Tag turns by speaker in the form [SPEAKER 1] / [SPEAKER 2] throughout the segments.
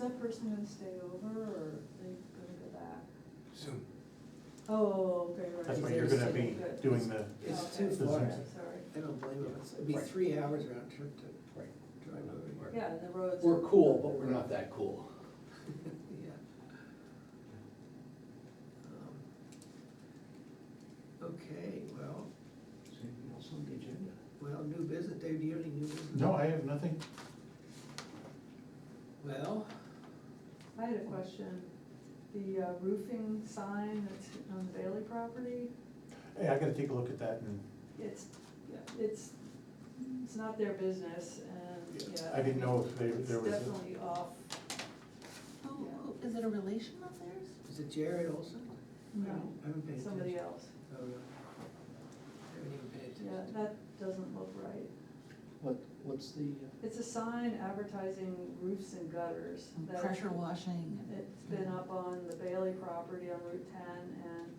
[SPEAKER 1] that person gonna stay over, or are they gonna go back?
[SPEAKER 2] Soon.
[SPEAKER 1] Oh, okay, right.
[SPEAKER 3] That's
[SPEAKER 1] so
[SPEAKER 3] what
[SPEAKER 1] they're
[SPEAKER 3] you're gonna
[SPEAKER 1] sitting
[SPEAKER 3] be
[SPEAKER 1] good.
[SPEAKER 3] doing the,
[SPEAKER 4] It's
[SPEAKER 1] Oh, Okay,
[SPEAKER 4] too
[SPEAKER 3] The
[SPEAKER 4] far.
[SPEAKER 3] Zoom.
[SPEAKER 1] Sorry,
[SPEAKER 4] I don't blame you. It'd be
[SPEAKER 2] Right.
[SPEAKER 4] three hours round trip to
[SPEAKER 2] Right.
[SPEAKER 4] drive over here.
[SPEAKER 1] yeah, and the roads.
[SPEAKER 5] We're cool, but we're not that cool.
[SPEAKER 4] Yeah. Um, Okay, well,
[SPEAKER 2] Is there anything else on the agenda?
[SPEAKER 4] well, new business. Dave, do you have any new business?
[SPEAKER 3] no, I have nothing.
[SPEAKER 4] Well,
[SPEAKER 1] I had a question, the uh, roofing sign that's on the Bailey property,
[SPEAKER 3] Hey, I gotta take a look at that and
[SPEAKER 1] it's, it's, it's not their business, and, yeah.
[SPEAKER 3] I didn't know if there,
[SPEAKER 1] It's
[SPEAKER 3] there was, a-
[SPEAKER 1] definitely off,
[SPEAKER 6] Who, who, is it a relation of theirs?
[SPEAKER 4] is it Jared Olson?
[SPEAKER 1] no,
[SPEAKER 4] I haven't paid attention.
[SPEAKER 1] somebody else,
[SPEAKER 4] Oh, really? I haven't even paid
[SPEAKER 1] yeah,
[SPEAKER 4] attention.
[SPEAKER 1] that doesn't look right.
[SPEAKER 5] What, what's the?
[SPEAKER 1] It's a sign advertising roofs and gutters. that-
[SPEAKER 6] Pressure washing. and-
[SPEAKER 1] It's been up on the Bailey property on Route ten, and,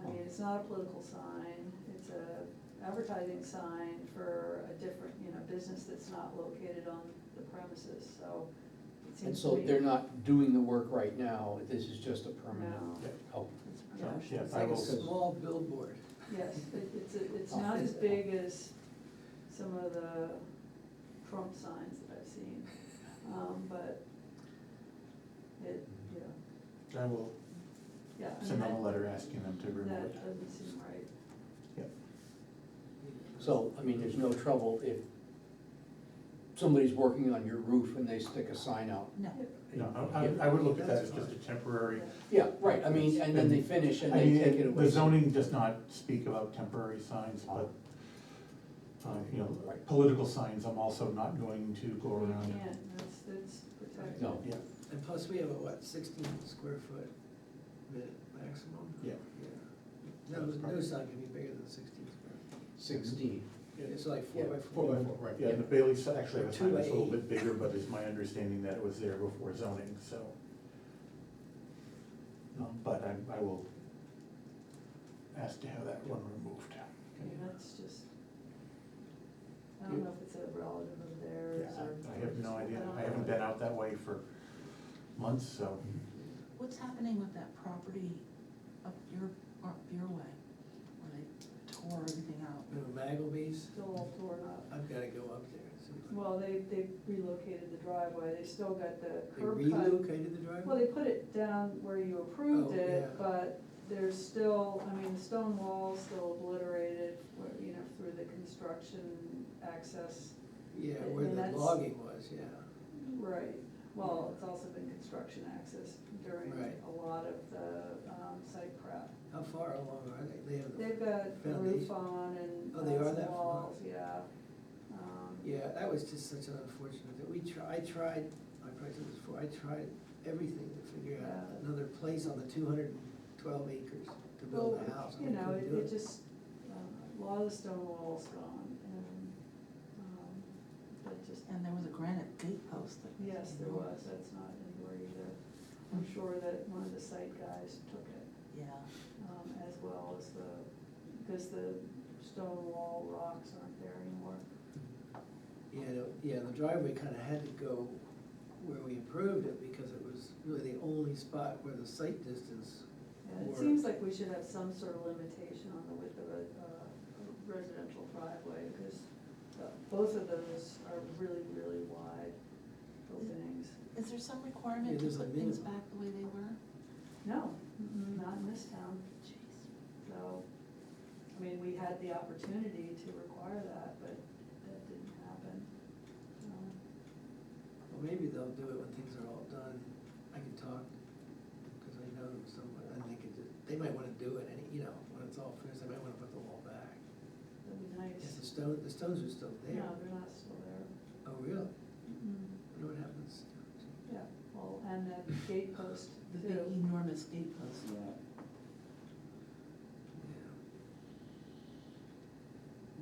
[SPEAKER 1] I mean, it's not a political sign, it's a advertising sign for a different, you know, business that's not located on the premises, so it
[SPEAKER 5] And
[SPEAKER 1] seems to
[SPEAKER 5] so
[SPEAKER 1] me.
[SPEAKER 5] they're not doing the work right now, this is just a permanent
[SPEAKER 1] No,
[SPEAKER 5] help.
[SPEAKER 1] it's
[SPEAKER 6] Yeah.
[SPEAKER 1] promotion.
[SPEAKER 3] yeah,
[SPEAKER 4] It's
[SPEAKER 3] I
[SPEAKER 4] like a
[SPEAKER 3] will,
[SPEAKER 4] small billboard.
[SPEAKER 1] Yes, it- it's, a- it's not as big as some of the Trump signs that I've seen, um, but it, yeah,
[SPEAKER 3] I will
[SPEAKER 1] yeah. I mean,
[SPEAKER 3] send them
[SPEAKER 1] that-
[SPEAKER 3] a letter asking them to remove
[SPEAKER 1] That
[SPEAKER 3] it.
[SPEAKER 1] doesn't seem right.
[SPEAKER 3] Yep.
[SPEAKER 5] So, I mean, there's no trouble if somebody's working on your roof and they stick a sign out.
[SPEAKER 6] No,
[SPEAKER 3] No, I- I, I would look at that as just a temporary,
[SPEAKER 5] Yeah, right, I mean, and then they finish and
[SPEAKER 3] I
[SPEAKER 5] they take it
[SPEAKER 3] mean,
[SPEAKER 5] away.
[SPEAKER 3] the zoning does not speak about temporary signs, but, uh, you know,
[SPEAKER 5] Right.
[SPEAKER 3] political signs, I'm also not going to go
[SPEAKER 1] You
[SPEAKER 3] around.
[SPEAKER 1] can't, that's, that's protected.
[SPEAKER 5] No.
[SPEAKER 3] Yeah,
[SPEAKER 4] And plus, we have a, what, sixteen square foot mi- maximum?
[SPEAKER 3] Yeah.
[SPEAKER 4] Yeah. No,
[SPEAKER 3] That's
[SPEAKER 4] no
[SPEAKER 3] probably-
[SPEAKER 4] sign can be bigger than sixteen square. feet.
[SPEAKER 5] Sixteen.
[SPEAKER 4] It's like four by four.
[SPEAKER 3] Four by four, right, yeah, and the Bailey si- actually, the
[SPEAKER 4] Two
[SPEAKER 3] sign was a
[SPEAKER 4] by
[SPEAKER 3] little
[SPEAKER 4] eight.
[SPEAKER 3] bit bigger, but it's my understanding that it was there before zoning, so. Um, But I, I will ask to have that one removed.
[SPEAKER 1] I mean, that's just, I don't know if it's a relative of
[SPEAKER 3] Yeah,
[SPEAKER 1] theirs or.
[SPEAKER 3] I have no idea,
[SPEAKER 1] don't
[SPEAKER 3] I haven't
[SPEAKER 1] know.
[SPEAKER 3] been out that way for months, so.
[SPEAKER 6] what's happening with that property up your, up your way, where they tore everything out?
[SPEAKER 4] You know, Magleby's,
[SPEAKER 1] Still all torn up.
[SPEAKER 4] I've gotta go up there. and see what-
[SPEAKER 1] Well, they, they relocated the driveway, they still got the
[SPEAKER 4] They
[SPEAKER 1] curb cut.
[SPEAKER 4] relocated the driveway?
[SPEAKER 1] Well, they put it down where you approved
[SPEAKER 4] Oh,
[SPEAKER 1] it,
[SPEAKER 4] yeah.
[SPEAKER 1] but there's still, I mean, the stone wall's still obliterated, where, you know, through the construction access.
[SPEAKER 4] Yeah,
[SPEAKER 1] I
[SPEAKER 4] where
[SPEAKER 1] mean,
[SPEAKER 4] the
[SPEAKER 1] that's-
[SPEAKER 4] logging was, yeah.
[SPEAKER 1] Right, well, it's also been construction access during
[SPEAKER 4] Right.
[SPEAKER 1] a lot of the um, site prep.
[SPEAKER 4] How far along are they? They have, the-
[SPEAKER 1] They've got the roof
[SPEAKER 4] Foundation.
[SPEAKER 1] on and
[SPEAKER 4] Oh, they are
[SPEAKER 1] lots
[SPEAKER 4] that
[SPEAKER 1] of
[SPEAKER 4] far?
[SPEAKER 1] walls, yeah. Um,
[SPEAKER 4] yeah, that was just such an unfortunate, that we try, I tried, I probably said this before, I tried everything to figure out
[SPEAKER 1] Yeah.
[SPEAKER 4] another place on the two hundred and twelve acres to build a
[SPEAKER 1] Well,
[SPEAKER 4] house.
[SPEAKER 1] you
[SPEAKER 4] and I
[SPEAKER 1] know,
[SPEAKER 4] couldn't
[SPEAKER 1] it
[SPEAKER 4] do
[SPEAKER 1] it just, uh, a lot of the stone walls gone and, um, but just,
[SPEAKER 6] And there was a granite gate post that.
[SPEAKER 1] yes, there was, that's not anywhere either. I'm sure that one of the site guys took it.
[SPEAKER 6] Yeah,
[SPEAKER 1] um, as well as the, because the stone wall rocks aren't there anymore.
[SPEAKER 4] Yeah, the- yeah, the driveway kinda had to go where we improved it, because it was really the only spot where the site distance,
[SPEAKER 1] And
[SPEAKER 4] Or-
[SPEAKER 1] it seems like we should have some sort of limitation on the width of a, uh, a residential driveway, because both of those are really, really wide openings.
[SPEAKER 6] is there some
[SPEAKER 4] Yeah,
[SPEAKER 6] requirement to
[SPEAKER 4] there's a
[SPEAKER 6] put things
[SPEAKER 4] minimum.
[SPEAKER 6] back the way they were?
[SPEAKER 1] No, mm-mm, not in this town,
[SPEAKER 6] Jeez.
[SPEAKER 1] so, I mean, we had the opportunity to require that, but that didn't happen. Um,
[SPEAKER 4] well, maybe they'll do it when things are all done. I can talk, cause I know someone, and they could just, they might wanna do it, and, you know, when it's all finished, they might wanna put the wall back.
[SPEAKER 1] That'd be
[SPEAKER 4] Yes, the
[SPEAKER 1] nice.
[SPEAKER 4] stone, the stones are still there.
[SPEAKER 1] No, they're not still there.
[SPEAKER 4] Oh, really?
[SPEAKER 1] Mm-mm.
[SPEAKER 4] I wonder what happens.
[SPEAKER 1] Yeah, well, and the gate post
[SPEAKER 6] The big E.
[SPEAKER 1] too.
[SPEAKER 6] enormous gate post.
[SPEAKER 4] Yeah.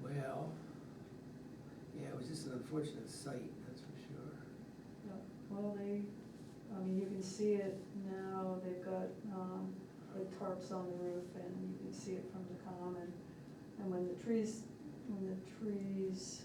[SPEAKER 4] Well, yeah, it was just an unfortunate sight, that's for sure.
[SPEAKER 1] Yeah, Well, they, I mean, you can see it now, they've got, um, the tarps on the roof and you can see it from the common. And when the trees, when the trees,